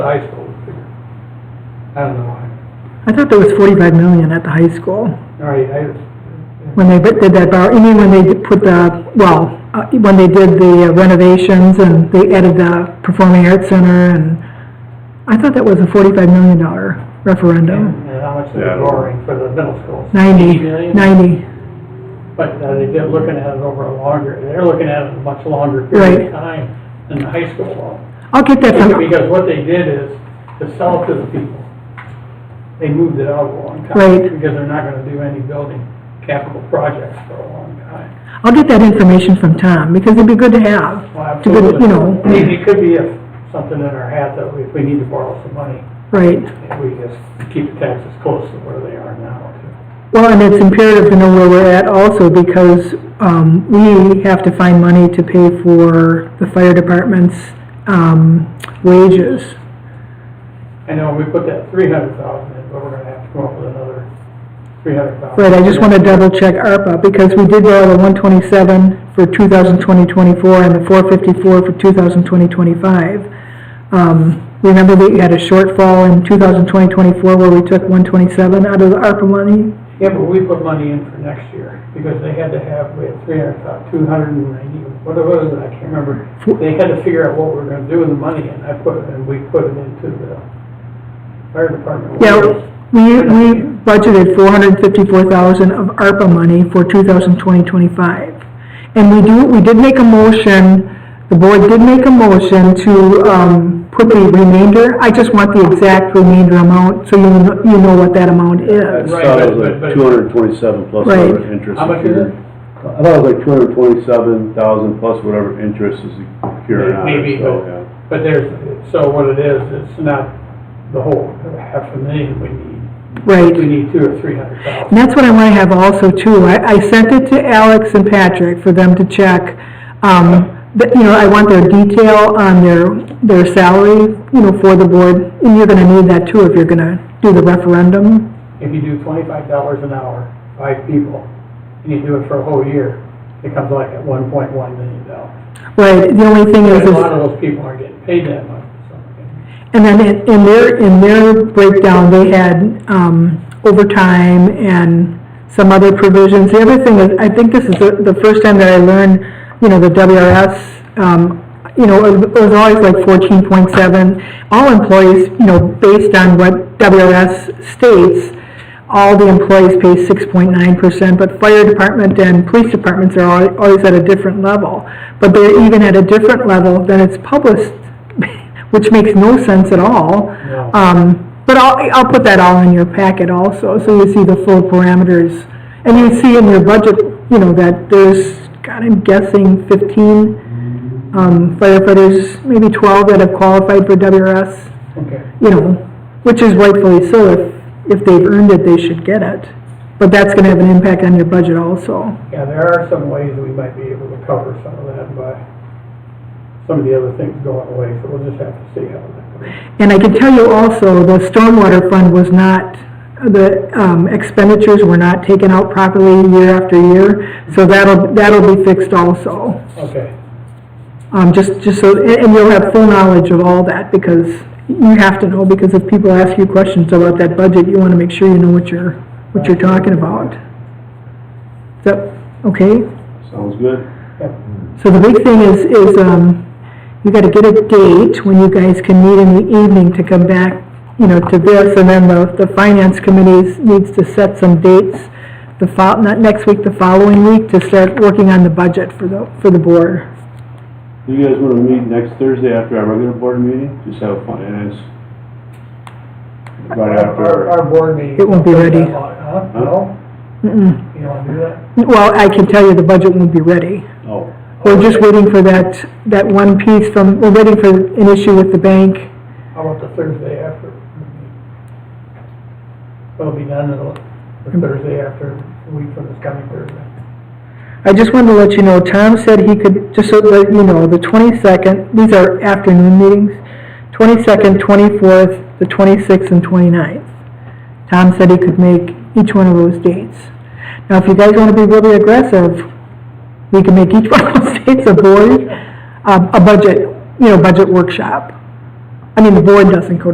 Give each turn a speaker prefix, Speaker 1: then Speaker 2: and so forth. Speaker 1: the high school figure. I don't know why.
Speaker 2: I thought there was 45 million at the high school,
Speaker 1: All right, I,
Speaker 2: when they did that bar, you mean when they put the, well, uh, when they did the uh, renovations and they added the Performing Arts Center and, I thought that was a $45 million referendum.
Speaker 1: and how much
Speaker 3: Yeah.
Speaker 1: they're borrowing for the middle schools.
Speaker 2: 90,
Speaker 1: 80 million?
Speaker 2: 90,
Speaker 1: But uh, they- they're looking at it over a longer, they're looking at it a much longer period
Speaker 2: Right.
Speaker 1: of time than the high school loan.
Speaker 2: I'll get that from,
Speaker 1: Because what they did is, to sell to the people, they moved it out a long time.
Speaker 2: Right.
Speaker 1: Because they're not gonna do any building capital projects for a long time.
Speaker 2: I'll get that information from Tom, because it'd be good to have, to good, you know,
Speaker 1: I mean, It could be a- something in our hat that we- if we need to borrow some money,
Speaker 2: right.
Speaker 1: if we just keep the taxes close to where they are now.
Speaker 2: Well, and it's imperative to know where we're at also because um, we have to find money to pay for the fire department's um, wages.
Speaker 1: I know we put that three hundred thousand in, but we're gonna have to come up with another three hundred thousand.
Speaker 2: Right, I just want to double check ARPA because we did borrow the 127 for 2020-24 and the 454 for 2020-25. Um, Remember that you had a shortfall in 2020-24 where we took 127 out of the ARPA money?
Speaker 1: Yeah, but we put money in for next year, because they had to have, we had three hundred thousand, two hundred and ninety, what it was, I can't remember. They had to figure out what we we're gonna do with the money, and I put, it and we put it into the fire department.
Speaker 2: Yeah,
Speaker 1: wages.
Speaker 2: we, we budgeted four hundred fifty-four thousand of ARPA money for two thousand twenty, twenty-five. And we do, we did make a motion, the board did make a motion to, um, put the remainder, I just want the exact remainder amount, so you, kn- you know what that amount is.
Speaker 1: Right,
Speaker 3: I thought it
Speaker 1: but-
Speaker 3: was
Speaker 1: but-
Speaker 3: like two hundred and twenty-seven plus
Speaker 2: Right.
Speaker 3: whatever interest.
Speaker 1: How much is
Speaker 3: accrued.
Speaker 1: it?
Speaker 3: I thought it was like two hundred and twenty-seven thousand plus whatever interest is accruing on
Speaker 1: Maybe,
Speaker 3: it, so,
Speaker 1: but-
Speaker 3: yeah.
Speaker 1: But there's, so what it is, it's not the whole half a million we need.
Speaker 2: Right.
Speaker 1: We need two or three hundred thousand.
Speaker 2: And that's what I want to have also too. I, I sent it to Alex and Patrick for them to check. Um, but, you know, I want their detail on their, their salary, you know, for the board. And you're going to need that too if you're going to do the referendum.
Speaker 1: If you do twenty-five dollars an hour, five people, and you do it for a whole year, it comes like at one point one million dollars.
Speaker 2: Right, the only thing is,
Speaker 1: And a
Speaker 2: is-
Speaker 1: lot of those people aren't getting paid that much, so.
Speaker 2: and then in in their, in their breakdown, they had, um, overtime and some other provisions. The other thing is, I think this is the, the first time that I learned, you know, the WRS, um, you know, it was always like fourteen point seven. All employees, you know, based on what WRS states, all the employees pay six point nine percent, but fire department and police departments are al- always at a different level. But they're even at a different level than it's published, which makes no sense at all.
Speaker 1: No.
Speaker 2: Um, but I'll, I'll put that all in your packet also, so you see the full parameters. And you see in your budget, you know, that there's, God, I'm guessing fifteen um, firefighters, maybe twelve that have qualified for WRS
Speaker 1: Okay.
Speaker 2: you know, which is rightfully so, if, if they've earned it, they should get it. But that's gonna have an impact on your budget also.
Speaker 1: Yeah, there are some ways we might be able to cover some of that by some of the other things going away, so we'll just have to see how that goes.
Speaker 2: And I can tell you also, the stormwater fund was not, the um, expenditures were not taken out properly year after year, so that'll, that'll be fixed also.
Speaker 1: Okay,
Speaker 2: Um, just, just so, and and you'll have full knowledge of all that, because you have to know, because if people ask you questions about that budget, you wanna make sure you know what you're, what you're talking about. Is that, okay?
Speaker 3: Sounds good.
Speaker 1: Yep.
Speaker 2: So the big thing is, is, um, you gotta get a date when you guys can meet in the evening to come back, you know, to this, and then the, the finance committee needs to set some dates the fol, not next week, the following week, to start working on the budget for the, for the board.
Speaker 3: Do you guys wanna meet next Thursday after our regular board meeting? Just have fun, and it's
Speaker 1: Our,
Speaker 3: right after,
Speaker 1: our board meeting.
Speaker 2: It won't be ready.
Speaker 1: Huh? No?
Speaker 2: Mm-mm.
Speaker 1: You don't want to do that?
Speaker 2: Well, I can tell you the budget won't be ready.
Speaker 3: oh,
Speaker 2: We're just waiting for that, that one piece from, we're waiting for an issue with the bank.
Speaker 1: How about the Thursday after? It'll be done until the Thursday after, the week from this coming Thursday.
Speaker 2: I just wanted to let you know, Tom said he could, just so that you know, the 22nd, these are afternoon meetings, 22nd, 24th, the 26th, and 29th. Tom said he could make each one of those dates. Now, if you guys want to be really aggressive, we can make each one of those dates a board, um, a budget, you know, budget workshop. I mean, the board doesn't go